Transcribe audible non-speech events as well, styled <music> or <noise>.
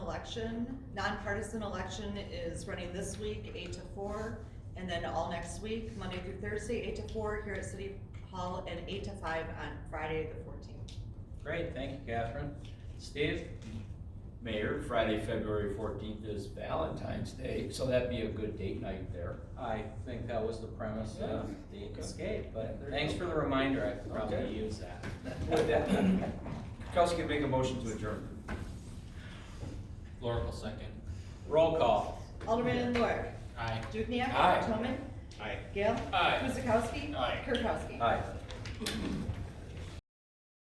election, nonpartisan election is running this week, eight to four, and then all next week, Monday through Thursday, eight to four here at City Hall, and eight to five on Friday the fourteenth. Great, thank you, Catherine. Steve? Mayor, Friday, February fourteenth is Valentine's Day, so that'd be a good date night there. I think that was the premise of Yeah. the Okay. escape, but There you thanks go. for the reminder, I could Okay. probably use <laughs> that. With that, Kukowski make a motion to adjourn. Laura will second. Roll call. Alderman Lorik. Aye. Dukenyak. Aye. Toman. Aye. Gale. Aye. Guzekowski. Aye. Kirkowski. Aye.